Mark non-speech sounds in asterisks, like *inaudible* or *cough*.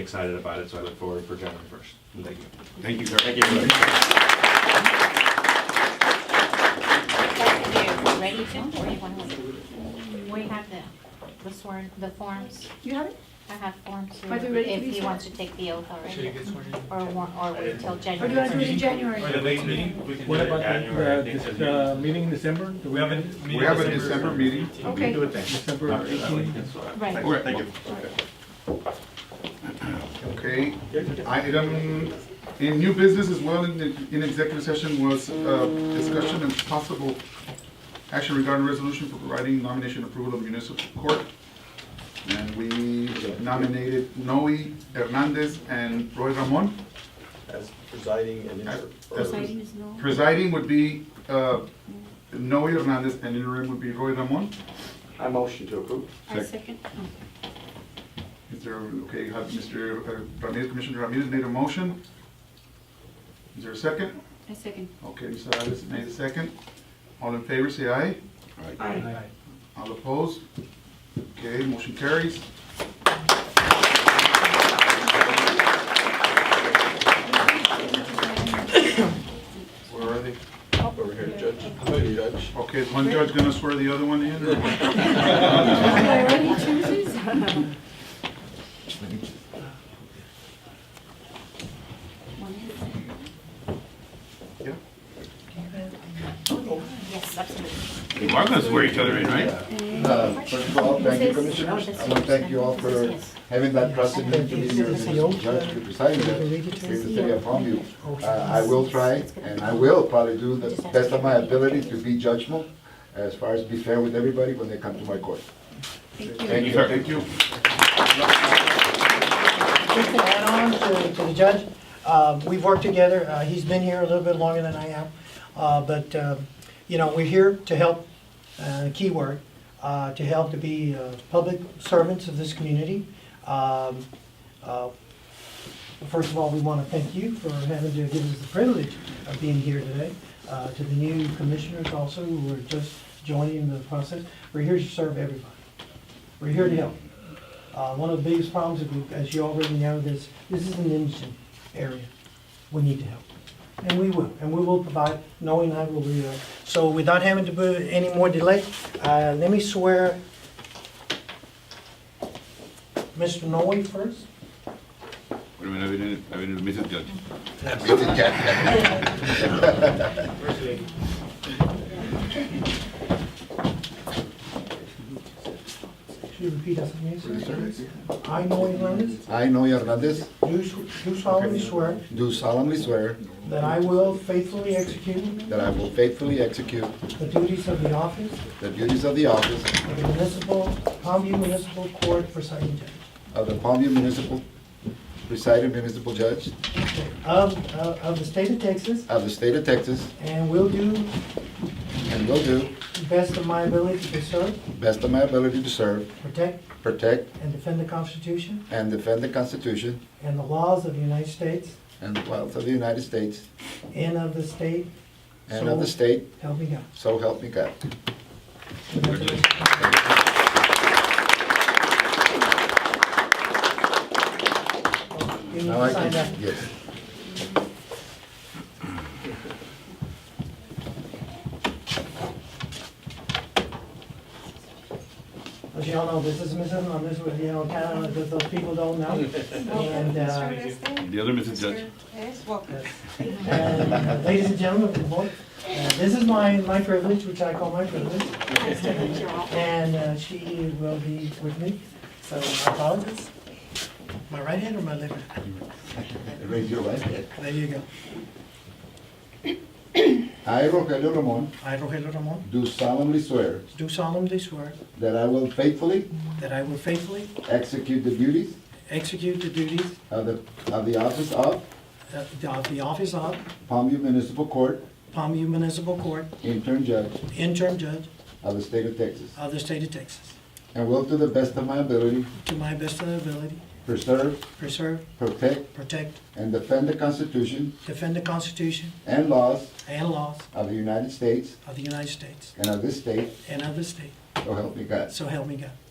excited about it, so I look forward for January first. Thank you. Thank you, sir. Thank you. Like, are you ready to, or you want to wait? We have the, the sworn, the forms, You have it? I have forms here, Are we ready to if be you sworn? want to take the oath already. Or, wa- or wait till Or do you want to do January. it in January? What about the, the, this, uh, meeting in December? Do We have a. We have a December meeting. Okay. Do it then. December eighteen? Right. Thank you. Okay, item, in new business as well, in, the- in executive session was, uh, discussion and possible action regarding resolution for providing nomination approval of municipal court. And we nominated Noe Hernandez and Roy Ramon. as presiding and As- inter- or- as Exciting is no. Presiding would be, uh, Noe Hernandez and interim would be Roy Ramon. I motion to approve. I second. Is there, okay, have Mr. Ramirez, Commissioner Ramirez made a motion. Is there a second? I second. Okay, Mr. Alves made a second. All in favor, say aye. Aye. All opposed? Okay, motion carries. Where are they? Over here, Judge. How about you, Judge? Okay, is one judge gonna swear the other one in? or- *laughs* Already chooses? Yeah. Yes, absolutely. You are gonna swear each other in, right? Uh, First of all, thank you, Commissioners. I want to thank you all for having that trust in me to be your judge to preside over the city of Palmview. Uh, I will try, and I will probably do the best of my ability to be judgmental, as far as be fair with everybody when they come to my court. Thank you, Thank you. Just to add on to, to the judge, uh, we've worked together, uh, he's been here a little bit longer than I am, uh, but, uh, you know, we're here to help, uh, keyword, uh, to help to be, uh, public servants of this community. Um, uh, First of all, we want to thank you for having to give us the privilege of being here today. Uh, To the new commissioners also, who are just joining the process, we're here to serve everybody. We're here to help. Uh, One of the biggest problems, if you- as you already know, is this is an indigent area. We need to help. And we will, and we will provide, knowing I will be there. So without having to put any more delay, uh, let me swear Mr. Noe first. Should you repeat after me? sir? I, Noe Hernandez, I, Noe Hernandez, do s- do solemnly swear do solemnly swear that I will faithfully execute that I will faithfully execute the duties of the office the duties of the office of the municipal, Palmview Municipal Court presiding judge of the Palmview Municipal, presiding municipal judge of, of- of the state of Texas, of the state of Texas, and will do and will do the best of my ability to serve, best of my ability to serve, protect, protect, and defend the Constitution and defend the Constitution and the laws of the United States and the wealth of the United States and of the state. and of the So state, Help me God. so help me God. Congratulations. You need Now I can, to sign that. yes. As y'all know, this is Mrs. on this one, you know, kind of, those people don't know. And, uh, The other Mrs. Judge. Yes, Walker. and ladies *laughs* and gentlemen, good morning. Uh, This is my, my privilege, which I call my privilege. Nice to meet you all. And uh, she will be with me, so I apologize. My right hand or my left hand? Raise your right hand. There you go. I, Rogelio Ramon, I, Rogelio Ramon, do solemnly swear do solemnly swear that I will faithfully that I will faithfully execute the duties execute the duties of the, of the office of of the- of the office of Palmview Municipal Court Palmview Municipal Court Intern Judge interim judge of the state of Texas, of the state of Texas, and will to the best of my ability to my best of my ability, preserve, preserve, protect, protect, and defend the Constitution defend the Constitution and laws and laws of the United States of the United States and of this state, and of the state, so help me God. so help me God.